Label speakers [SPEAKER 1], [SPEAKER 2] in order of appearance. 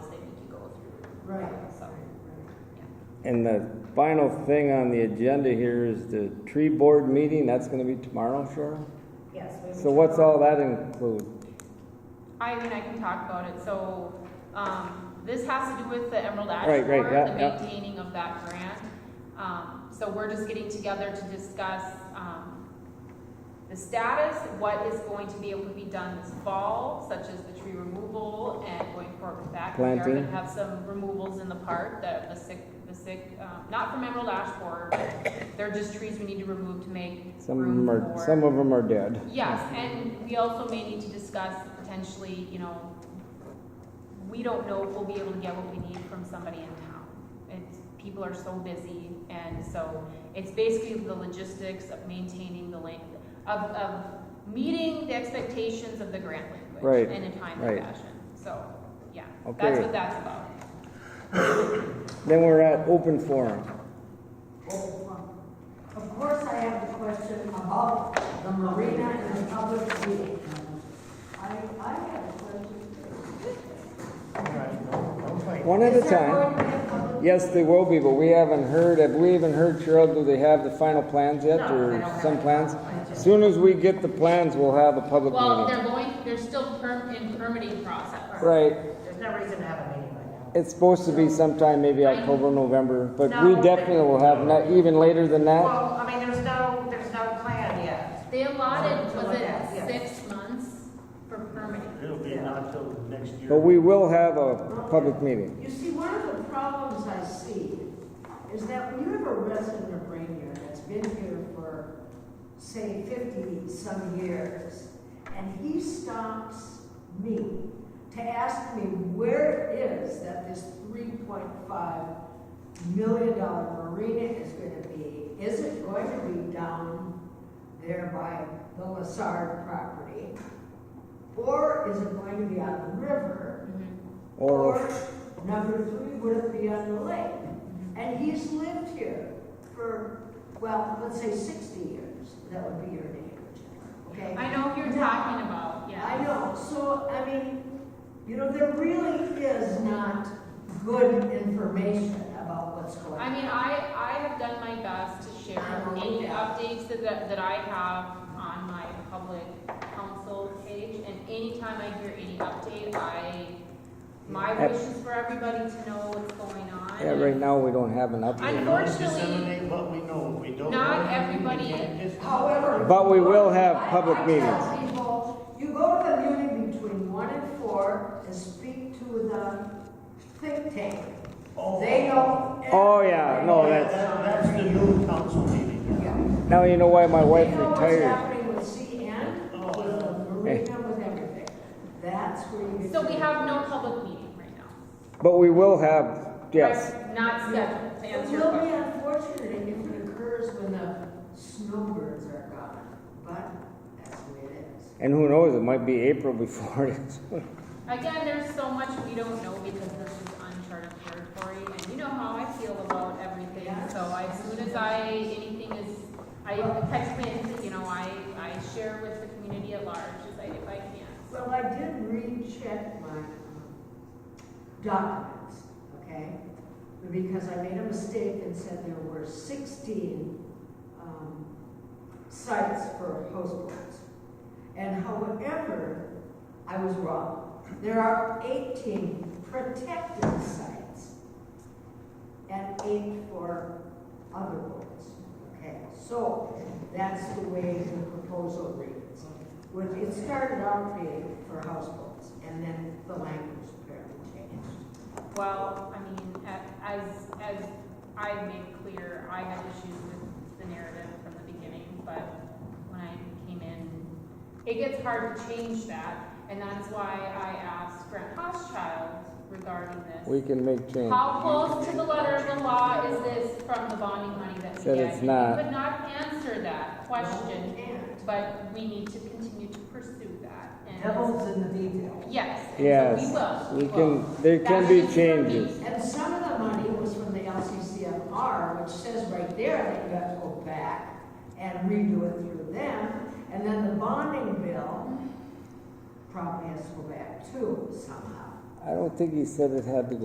[SPEAKER 1] Right.
[SPEAKER 2] so.
[SPEAKER 3] And the final thing on the agenda here is the tree board meeting, that's gonna be tomorrow, Cheryl?
[SPEAKER 1] Yes. we
[SPEAKER 3] So
[SPEAKER 1] would-
[SPEAKER 3] what's all that include?
[SPEAKER 2] I mean, I can talk about it, so, um, this has to do with the Emerald Ash
[SPEAKER 3] Right, right,
[SPEAKER 2] Board,
[SPEAKER 3] yeah,
[SPEAKER 2] the
[SPEAKER 3] yeah.
[SPEAKER 2] maintaining of that grant. Um, so we're just getting together to discuss, um, the status, what is going to be able to be done this fall, such as the tree removal and going forward with that. We are
[SPEAKER 3] Planting.
[SPEAKER 2] gonna have some removals in the park, that the sick, the sick, um, not from Emerald Ash Board, they're just trees we need to remove to make
[SPEAKER 3] Some of
[SPEAKER 2] room
[SPEAKER 3] them
[SPEAKER 2] for.
[SPEAKER 3] are, some of them are dead.
[SPEAKER 2] Yes, and we also may need to discuss potentially, you know, we don't know if we'll be able to get what we need from somebody in town. It's, people are so busy, and so it's basically the logistics of maintaining the length, of, of meeting the expectations of the grant
[SPEAKER 3] Right,
[SPEAKER 2] language in a timely
[SPEAKER 3] right.
[SPEAKER 2] fashion. So, yeah, that's
[SPEAKER 3] Okay.
[SPEAKER 2] what that's about.
[SPEAKER 3] Then we're at open forum.
[SPEAKER 1] Of course, I have a question about the marina and the public meeting. I, I have a question.
[SPEAKER 3] One at a
[SPEAKER 1] Is there
[SPEAKER 3] time.
[SPEAKER 1] going to be a public-
[SPEAKER 3] Yes, they will be, but we haven't heard, have we even heard, Cheryl, do they have the final plans yet, or some plans? Soon as we get the plans, we'll have a public
[SPEAKER 2] Well,
[SPEAKER 3] meeting.
[SPEAKER 2] they're going, they're still perm, in permitting process.
[SPEAKER 3] Right,
[SPEAKER 4] There's no reason to have a meeting right now.
[SPEAKER 3] it's supposed to be sometime maybe
[SPEAKER 2] Right.
[SPEAKER 3] October, November, but we
[SPEAKER 4] No.
[SPEAKER 3] definitely will have, not even later than that.
[SPEAKER 4] Well, I mean, there's no, there's no plan yet.
[SPEAKER 2] They allotted,
[SPEAKER 4] To
[SPEAKER 2] was
[SPEAKER 4] look at,
[SPEAKER 2] it
[SPEAKER 4] yes.
[SPEAKER 2] six months for permitting?
[SPEAKER 5] It'll be not till next year.
[SPEAKER 3] But we will have a public meeting.
[SPEAKER 1] You see, one of the problems I see is that when you have a resident of Rainier that's been here for, say, fifty-some years, and he stops me to ask me where it is that this three point five million dollar marina is gonna be, is it going to be down there by the Lassard property? Or is it going to be on the river?
[SPEAKER 2] Mm-hmm.
[SPEAKER 3] Or,
[SPEAKER 1] number three, would it be on the lake? And he's lived here for, well, let's say sixty years, that would be your neighborhood, okay?
[SPEAKER 2] I know who you're talking about,
[SPEAKER 1] I
[SPEAKER 2] yeah.
[SPEAKER 1] know, so, I mean, you know, there really is not good information about what's going
[SPEAKER 2] I
[SPEAKER 1] on.
[SPEAKER 2] mean, I, I have done my best to share
[SPEAKER 1] I know,
[SPEAKER 2] any
[SPEAKER 1] yeah.
[SPEAKER 2] updates that, that that I have on my public council page, and anytime I hear any update, I, my
[SPEAKER 3] Yep.
[SPEAKER 2] wish is for everybody to know what's going on.
[SPEAKER 3] yeah, right now, we don't have an update.
[SPEAKER 5] We don't
[SPEAKER 2] Unfortunately,
[SPEAKER 5] disseminate what we know. We don't.
[SPEAKER 2] not
[SPEAKER 5] know anything, we
[SPEAKER 2] everybody-
[SPEAKER 5] can't dis-
[SPEAKER 1] However.
[SPEAKER 3] But we will have
[SPEAKER 1] I-
[SPEAKER 3] public
[SPEAKER 1] I
[SPEAKER 3] meetings.
[SPEAKER 1] tell people, you go to the meeting between one and four and speak to the think tank.
[SPEAKER 5] Oh.
[SPEAKER 1] They know.
[SPEAKER 3] Oh, yeah, no,
[SPEAKER 5] Yeah,
[SPEAKER 3] that's-
[SPEAKER 5] that- That's the new council meeting.
[SPEAKER 1] Yeah.
[SPEAKER 3] Now you know why my wife
[SPEAKER 1] They know what's
[SPEAKER 3] retired.
[SPEAKER 1] happening with CN, with the marina, with everything. That's where you. get
[SPEAKER 2] So we
[SPEAKER 1] to-
[SPEAKER 2] have no public meeting right now.
[SPEAKER 3] But we will have, yes.
[SPEAKER 2] Right, Not scheduled, to
[SPEAKER 1] It
[SPEAKER 2] answer your
[SPEAKER 1] will be
[SPEAKER 2] question.
[SPEAKER 1] unfortunate if it occurs when the snowbirds are gone, but that's the way it is.
[SPEAKER 3] And who knows, it might be April before it is.
[SPEAKER 2] Again, there's so much we don't know because this is uncharted territory, and you know how I feel about everything, so I- as soon as I, anything is, I text it, you know, I, I share with the community at large, as I, if I can.
[SPEAKER 1] Well, I did recheck my um, documents, okay? Because I made a mistake and said there were sixteen um, sites for host boats. And however, I was wrong. There are eighteen protected sites and eight for other boats, okay? So that's the way the proposal reads. When it started out being for houseboats, and then the language apparently changed.
[SPEAKER 2] Well, I mean, a- as, as I made clear, I had issues with the narrative from the beginning, but when I came in, it gets hard to change that, and that's why I asked Brent Hoschild regarding this.
[SPEAKER 3] We can make change.
[SPEAKER 2] How close to the letter of the law is this from the bonding money that we
[SPEAKER 3] Said
[SPEAKER 2] get?
[SPEAKER 3] it's not.
[SPEAKER 2] We could not answer that question,
[SPEAKER 1] And
[SPEAKER 2] but we need to continue to pursue that. and-
[SPEAKER 4] Devil's in the details.
[SPEAKER 2] Yes. and so
[SPEAKER 3] Yes,
[SPEAKER 2] We
[SPEAKER 3] we
[SPEAKER 2] will, we will.
[SPEAKER 3] can, there can be changes.
[SPEAKER 1] And some of the money was from the LCCMR, which says right there that you have to go back and redo it through them. And then the bonding bill probably has to go back too somehow.
[SPEAKER 3] I don't think he said it had to go